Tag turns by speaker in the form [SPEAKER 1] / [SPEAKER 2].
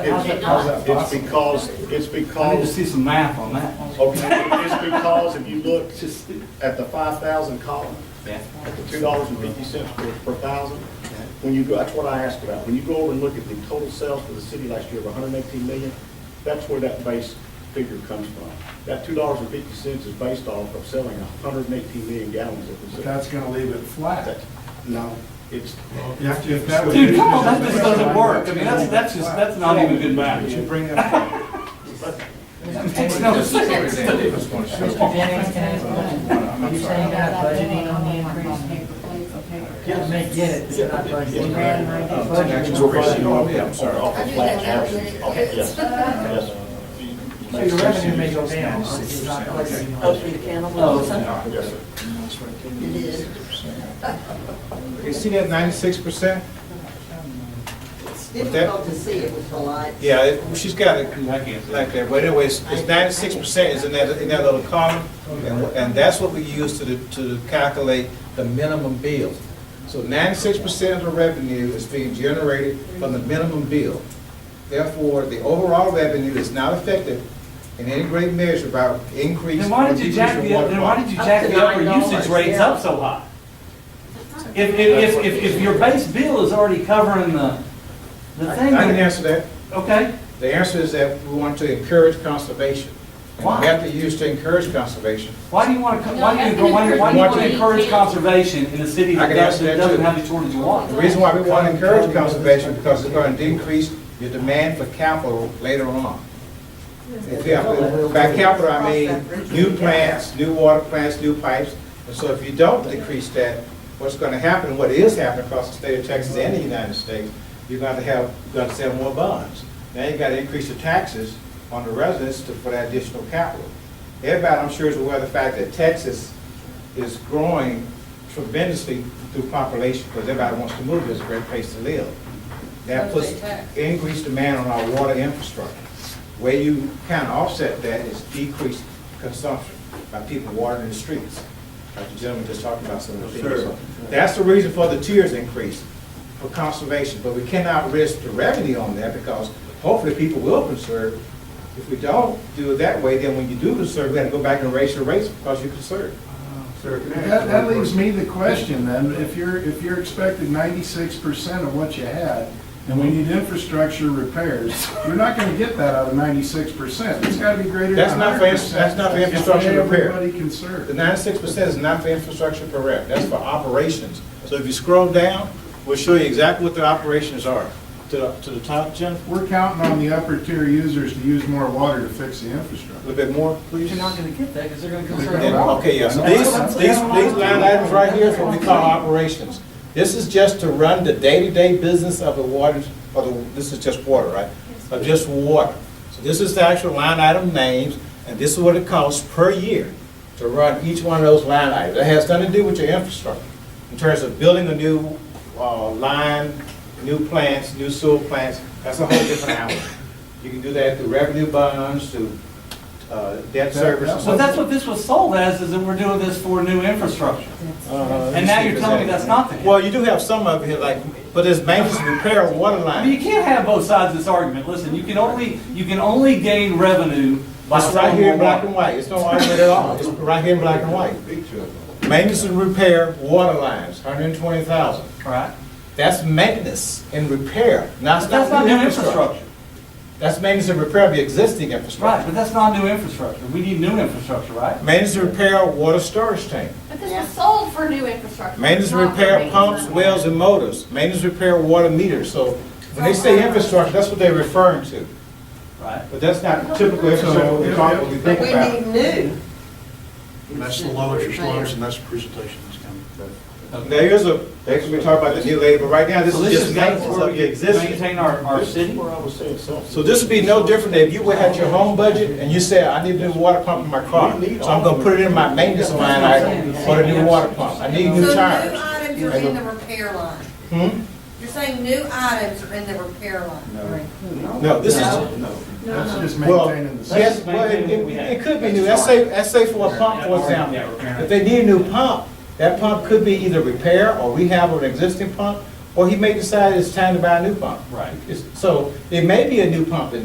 [SPEAKER 1] It's-
[SPEAKER 2] How's that
[SPEAKER 1] It's
[SPEAKER 2] possible?
[SPEAKER 1] because, it's
[SPEAKER 2] I need to
[SPEAKER 1] because,
[SPEAKER 2] see some math on that one.
[SPEAKER 1] okay, it's because if you look
[SPEAKER 2] It's just,
[SPEAKER 1] at the five thousand column,
[SPEAKER 2] yeah.
[SPEAKER 1] at the two dollars and fifty cents per, per thousand, when you go, that's what I asked about, when you go over and look at the total sales for the city last year of hundred and eighteen million, that's where that base figure comes from. That two dollars and fifty cents is based off of selling hundred and eighteen million gallons of
[SPEAKER 3] But
[SPEAKER 1] the city.
[SPEAKER 3] that's gonna leave it flat.
[SPEAKER 1] That's- No, it's,
[SPEAKER 3] You have to- if that was-
[SPEAKER 2] Dude, come on, that just doesn't work. I mean, that's, that's just, that's not even good math.
[SPEAKER 3] But you bring that,
[SPEAKER 2] It makes no sense.
[SPEAKER 4] Mr. Jennings, can I ask one? You're saying you're not budgeting on the increase? I may get it, but you're not budgeting. Budgeting.
[SPEAKER 1] Oh, I'm sorry, off
[SPEAKER 5] I
[SPEAKER 1] the
[SPEAKER 5] do
[SPEAKER 1] flat
[SPEAKER 5] that now,
[SPEAKER 1] average,
[SPEAKER 5] but
[SPEAKER 1] off,
[SPEAKER 5] it-
[SPEAKER 1] yes, yes.
[SPEAKER 4] So your revenue may go down, but you're not budgeting
[SPEAKER 6] Oh,
[SPEAKER 4] on it.
[SPEAKER 1] Yes, sir.
[SPEAKER 7] You see that ninety-six percent?
[SPEAKER 6] It's difficult to see it with the lights.
[SPEAKER 7] Yeah, it- she's got it like that, but anyways, it's ninety-six percent is in that, in that little column, and, and that's what we use to, the- to calculate the minimum bill. So ninety-six percent of the revenue is being generated from the minimum bill. Therefore, the overall revenue is not affected in any great measure by increase.
[SPEAKER 2] Then why
[SPEAKER 7] or
[SPEAKER 2] did you
[SPEAKER 7] decrease
[SPEAKER 2] jack
[SPEAKER 7] in
[SPEAKER 2] the,
[SPEAKER 7] water
[SPEAKER 2] then why
[SPEAKER 7] costs.
[SPEAKER 2] did you
[SPEAKER 6] Up
[SPEAKER 2] jack
[SPEAKER 6] to
[SPEAKER 2] the upper
[SPEAKER 6] $9,
[SPEAKER 2] usage rates up so high? If, if, if, if, if your base bill is already covering the, the thing,
[SPEAKER 7] I can
[SPEAKER 2] then-
[SPEAKER 7] answer that.
[SPEAKER 2] okay?
[SPEAKER 7] The answer is that we want to encourage conservation. And
[SPEAKER 2] Why?
[SPEAKER 7] we have to use to encourage conservation.
[SPEAKER 2] Why do you want to, why do you,
[SPEAKER 8] No,
[SPEAKER 2] why do you why do you want to
[SPEAKER 8] that's-
[SPEAKER 2] encourage conservation in a city
[SPEAKER 7] I
[SPEAKER 2] that
[SPEAKER 7] can
[SPEAKER 2] doesn't, that
[SPEAKER 7] answer that
[SPEAKER 2] doesn't
[SPEAKER 7] too.
[SPEAKER 2] have a shortage of
[SPEAKER 7] The
[SPEAKER 2] water?
[SPEAKER 7] reason why we want to encourage conservation, because it's going to decrease your demand for capital later on. If you have- By capital, I mean new plants, new water plants, new pipes. And so if you don't decrease that, what's going to happen, what is happening across the state of Texas and the United States, you're going to have, you're going to sell more bonds. Now you got to increase the taxes on the residents to- for that additional capital. Everybody, I'm sure, is aware of the fact that Texas is growing tremendously through population, because everybody wants to move, it's a great place to live. That puts increased demand on our water infrastructure. Where you kind of offset that is decreased consumption by people watering the streets, like the gentleman just talked about some of the things. So That's the reason for the tiers increase, for conservation, but we cannot risk the revenue on that, because hopefully people will conserve. If we don't do it that way, then when you do conserve, we have to go back and raise your rates because you conserve.
[SPEAKER 3] that that leaves me the question then, if you're, if you're expecting ninety-six percent of what you had, and we need infrastructure repairs, you're not gonna get that out of ninety-six percent. It's gotta be greater than
[SPEAKER 7] That's not for-
[SPEAKER 3] hundred percent.
[SPEAKER 7] that's not for infrastructure repair.
[SPEAKER 3] Everybody concerned.
[SPEAKER 7] The ninety-six percent is not for infrastructure per rep, that's for operations. So if you scroll down, we'll show you exactly what the operations are. To, the- to the top, Jim,
[SPEAKER 3] We're counting on the upper tier users to use more water to fix the
[SPEAKER 7] a
[SPEAKER 3] infrastructure.
[SPEAKER 7] little bit more,
[SPEAKER 2] But
[SPEAKER 7] please.
[SPEAKER 2] You're not gonna get that, because they're gonna conserve.
[SPEAKER 7] Then, Okay, yes, these, these, these line items right here is what we call operations. This is just to run the day-to-day business of the water, of the, this is just water, right? Of just water. So this is the actual line item names, and this is what it costs per year to run each one of those line items. It has nothing to do with your infrastructure, in terms of building a new, uh, line, new plants, new sewer plants, that's a whole different hour. You can do that through revenue bonds, through, uh, debt service. and so
[SPEAKER 2] But that's
[SPEAKER 7] forth.
[SPEAKER 2] what this was sold as, is that we're doing this for new infrastructure.
[SPEAKER 7] And
[SPEAKER 2] now you're telling me that's not the case.
[SPEAKER 7] Uh, Well, you do have some of it, like, but it's maintenance and repair of water
[SPEAKER 2] I mean, you
[SPEAKER 7] line.
[SPEAKER 2] can't have both sides of this argument. Listen, you can only, you can only gain revenue by
[SPEAKER 7] It's right here
[SPEAKER 2] selling more
[SPEAKER 7] in black
[SPEAKER 2] water.
[SPEAKER 7] and white, it's no argument at all, it's right here in black and white. Maintenance and repair water lines, hundred and twenty thousand.
[SPEAKER 2] Right?
[SPEAKER 7] That's maintenance and repair, not,
[SPEAKER 2] But that's not new infrastructure.
[SPEAKER 7] That's maintenance and repair of the existing
[SPEAKER 2] Right,
[SPEAKER 7] infrastructure.
[SPEAKER 2] but that's not new infrastructure. We need new infrastructure, right?
[SPEAKER 7] Maintenance and repair of water storage tank,
[SPEAKER 8] But this was sold for new infrastructure.
[SPEAKER 7] maintenance and
[SPEAKER 8] not for
[SPEAKER 7] repair of
[SPEAKER 8] maintenance.
[SPEAKER 7] pumps, wells and motors, maintenance and repair of water meters, so when they say infrastructure, that's what they're referring to.
[SPEAKER 2] Right.
[SPEAKER 7] But that's not typical infrastructure we talk, we
[SPEAKER 6] But
[SPEAKER 7] think
[SPEAKER 6] we
[SPEAKER 7] about.
[SPEAKER 6] need new.
[SPEAKER 9] That's the lowest, it's lowest, and that's the presentation that's coming.
[SPEAKER 7] There is a, that's what we talk about the new labor, right now, this
[SPEAKER 2] So
[SPEAKER 7] is just
[SPEAKER 2] guidance
[SPEAKER 7] maintenance
[SPEAKER 2] where
[SPEAKER 7] of
[SPEAKER 2] we
[SPEAKER 7] the existing.
[SPEAKER 2] Maintain our, our
[SPEAKER 1] This
[SPEAKER 2] city.
[SPEAKER 1] is where I was saying something.
[SPEAKER 7] So this would be no different than if you had your home budget and you said, I need a new water pump in my car. So I'm gonna put it in my maintenance line item for the new water pump, I need
[SPEAKER 5] So
[SPEAKER 7] new
[SPEAKER 5] new
[SPEAKER 7] tires.
[SPEAKER 5] items are in the repair line.
[SPEAKER 7] Hmm?
[SPEAKER 5] You're saying new items are in the repair line.
[SPEAKER 7] No, this is,
[SPEAKER 3] That's just
[SPEAKER 7] well,
[SPEAKER 3] maintaining the system.
[SPEAKER 7] yes, well, it, it- it could be new, let's say, let's say for a pump, for example.
[SPEAKER 2] Yeah, we're-
[SPEAKER 7] If they need a new pump, that pump could be either repair or rehab of an existing pump, Or he may decide it's time to buy a new pump.
[SPEAKER 2] Right.
[SPEAKER 7] It's- So, there may be a new pump in